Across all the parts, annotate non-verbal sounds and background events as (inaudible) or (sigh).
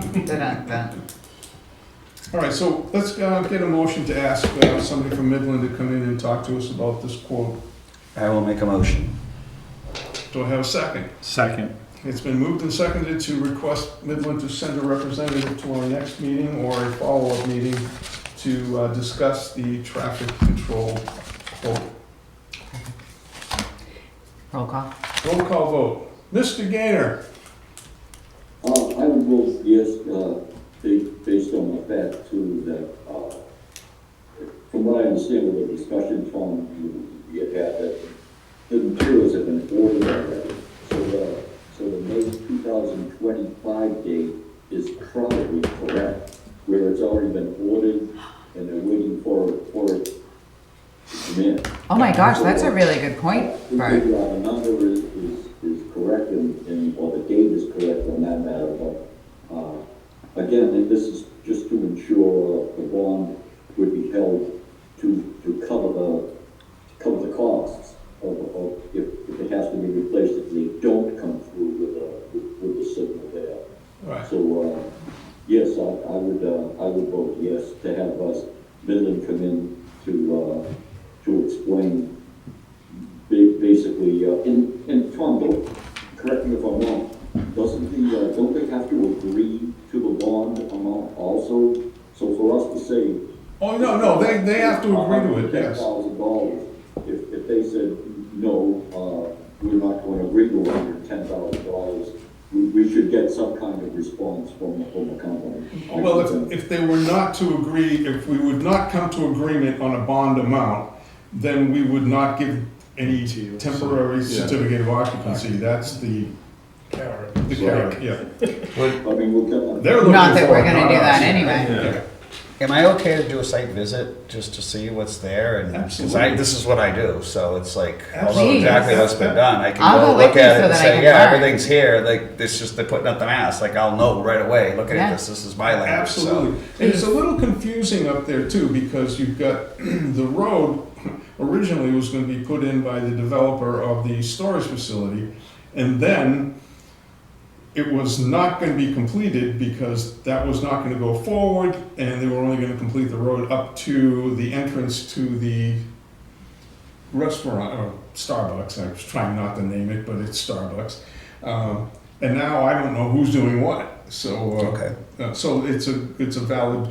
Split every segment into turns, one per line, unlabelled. didn't then.
All right, so let's uh, get a motion to ask uh, somebody from Midland to come in and talk to us about this quote.
I will make a motion.
Do I have a second?
Second.
It's been moved and seconded to request Midland to send a representative to our next meeting or a follow-up meeting to uh, discuss the traffic control quote.
Roll call.
Roll call vote. Mr. Gaynor?
Uh, I would vote yes, uh, ba- based on the fact too that, uh, from what I understand with the discussion from you, you had that the materials have been ordered already. So, uh, so the May two thousand twenty-five date is probably correct, where it's already been ordered and they're waiting for, for it to come in.
Oh my gosh, that's a really good point,
We
Bert.
figure out the number is, is, is correct and, and, or the date is correct on that matter, but, uh, again, and this is just to ensure the bond would be held to, to cover the, cover the costs of, of, if, if it has to be replaced, if they don't come through with, uh, with- with the signal there.
Right.
So, uh, yes, I, I would, uh, I would vote yes to have us, Midland come in to, uh, to explain ba- basically, uh, and, and Tom, don't, correct me if I'm wrong, doesn't the, uh, don't they have to agree to the bond amount also? So for us to say.
Oh, no, no, they, they have to agree to it,
Ten
yes.
thousand dollars, if, if they said, no, uh, we're not going to agree to under ten thousand dollars, we, we should get some kind of response from, from the company. I
Well,
think
if, if they were not to agree, if we would not come to agreement on a bond amount, then we would not give any temporary certificate of occupancy, that's the. Carrot. The carrot, yeah.
that- I mean, we'll get.
They're looking
Not that
for
we're
it,
gonna
not
do that
us.
anyway.
Yeah.
Am I okay to do a site visit just to see what's there? And because I,
Absolutely.
this is what I do, so it's like, although
Please.
exactly what's been done, I can
I'll
go
go
look
with you
at
so
it and
that I
say,
can
yeah,
learn."
everything's here. Like it's just they're putting up the mask. Like I'll know right away. Looking
Yeah.
at this, this is my land.
Absolutely. And it's a little confusing up there too, because you've got, (clears throat) the road originally was gonna be put in by the developer of the storage facility. And then it was not gonna be completed because that was not gonna go forward and they were only gonna complete the road up to the entrance to the restaurant, or Starbucks, I was trying not to name it, but it's Starbucks. Um, And now I don't know who's doing what, so. uh,
Okay.
uh, So it's a, it's a valid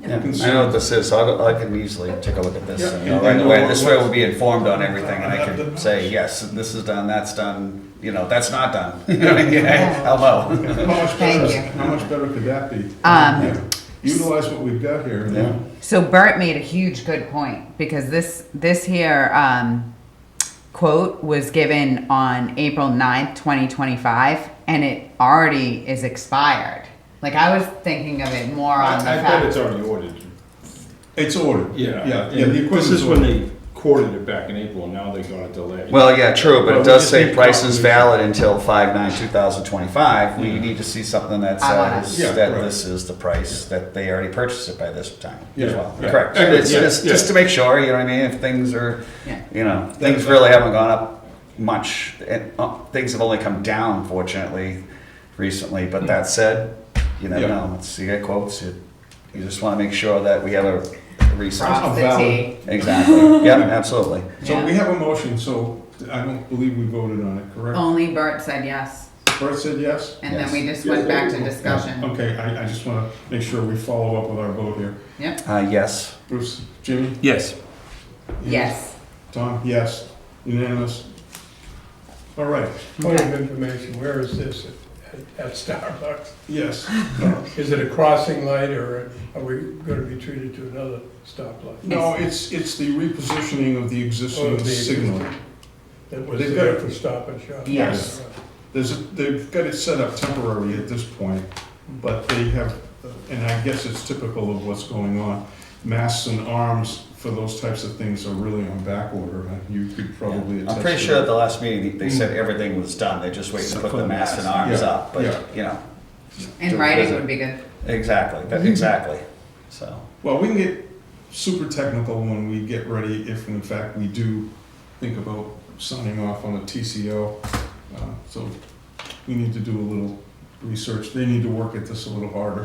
Yeah, I know
concern.
what this is, so I'll- I can easily take a look at this
Yeah.
and know right away. This way we'll be informed on everything and I can say, yes, this is done, that's done, you know, that's not done. (laughs) Yeah, I'll know.
How much
Thank
better,
you.
how much better could that be? Yeah.
Um,
Utilize what we've got here.
Yeah.
so Bert made a huge good point because this, this here, um, quote was given on April 9th, twenty twenty-five, and it already is expired. Like I was thinking of it more on the
I, I bet
fact.
it's already ordered.
It's ordered.
Yeah.
Yeah, yeah,
and
the
This
equipment's
is when
ordered.
they quoted it back in April, now they're gonna delay.
Well, yeah, true, but
Well,
it
we
does
just
say
need
price is
confirmation.
valid until five nine two thousand twenty-five. We need to see something that
I wanna-
says
Yeah,
that
right.
this is the price, that they already purchased it by this time as
Yeah,
well.
yeah.
Correct.
Yeah,
It's
yeah,
just,
yeah.
just to make sure, you know what I mean, if things are,
Yeah.
you know, things really haven't gone up much. And, uh, things have only come down fortunately recently, but that said, you never
Yeah.
know, it's, you get quotes, you, you just wanna make sure that we have a resource.
Prob-
Cross the
valid.
T.
Exactly, yeah, absolutely.
So we have a motion, so I don't believe we voted on it, correct?
Only Bert said yes,
Bert said yes?
and then
Yes.
we just went back to discussion.
Okay, I, I just want to make sure we follow up with our vote here.
Yep,
Uh, yes.
Bruce, Jimmy?
Yes.
yes.
Tom, yes. Unanimous? All right,
Point of information, where is this at- at Starbucks?
yes.
Is it a crossing light or are we gonna be treated to another stoplight?
No, it's, it's the repositioning of the existing
Or the-
signal.
That was
They've
there
got-
for stop and shop?
Yes.
There's, a- they've got it set up temporary at this point, but they have, and I guess it's typical of what's going on. Masks and arms for those types of things are really on back order. Uh, You could probably attest
I'm pretty
to
sure at
that. Mm.
the last meeting, they said everything was done, they're just waiting to put the masks and arms
Yeah,
up,
yeah.
but, you know,
And writing would be good.
exactly, that-
Mm-hmm.
exactly, so.
Well, we can get super technical when we get ready, if in fact we do think about signing off on a TCO. Uh, So we need to do a little research. They need to work at this a little harder.